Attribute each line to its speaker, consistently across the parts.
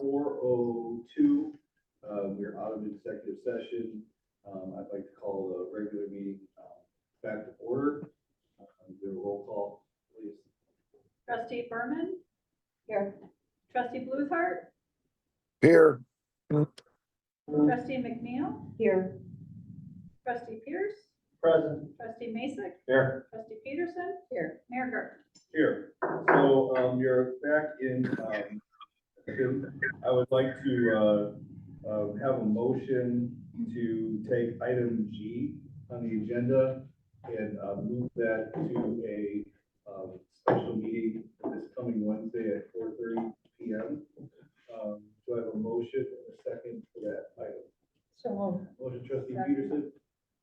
Speaker 1: oh Uh, executive session. Um, I'd like to call the regular meeting, um, back to order. Um, Do a roll call, please.
Speaker 2: Trustee Berman? Here. Trustee Bluthart?
Speaker 3: Here,
Speaker 2: Trustee McNeil? Here. Trustee Pierce?
Speaker 1: Present.
Speaker 2: Trustee Mason?
Speaker 1: Here.
Speaker 2: Trustee Peterson? Here. Mayor Gurke?
Speaker 1: Here, so, um, you're back in, um, I would like to, uh, uh, have a motion to take item G on the agenda and, uh, move that to a, um, special meeting this coming Wednesday at four thirty P M. Um, do I have a motion and a second for that item?
Speaker 2: So
Speaker 1: Motion trustee
Speaker 2: Second.
Speaker 1: Peterson,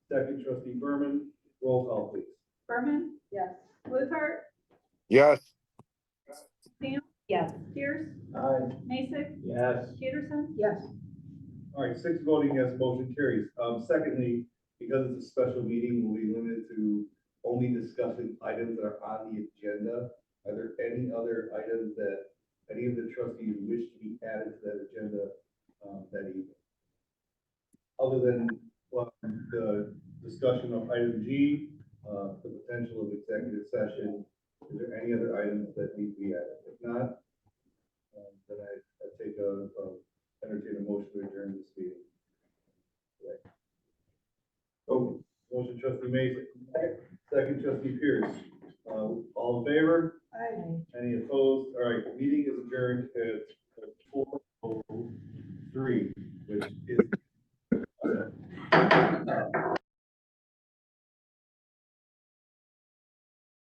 Speaker 1: second trustee Berman, roll call please.
Speaker 2: Berman? Yes. Bluthart?
Speaker 3: yes,
Speaker 2: Yes. Pierce?
Speaker 1: Aye.
Speaker 2: Mason?
Speaker 1: Yes.
Speaker 2: Peterson? Yes.
Speaker 1: All right, six voting yes, motion carries. Um, secondly, because it's a special meeting, we'll be limited to only discussing items that are on the agenda. Are there any other items that any of the trustees wish to be added to that agenda, um, that evening? Other than, well, the discussion of item G, uh, the potential of executive session, is there any other items that need to be added? If not, um, then I, I take a, a entertain a motion to adjourn this meeting. Right. Oh, motion trustee Mason, second trustee Pierce, uh, all in favor,
Speaker 2: Aye.
Speaker 1: any opposed, all right, meeting is adjourned at oh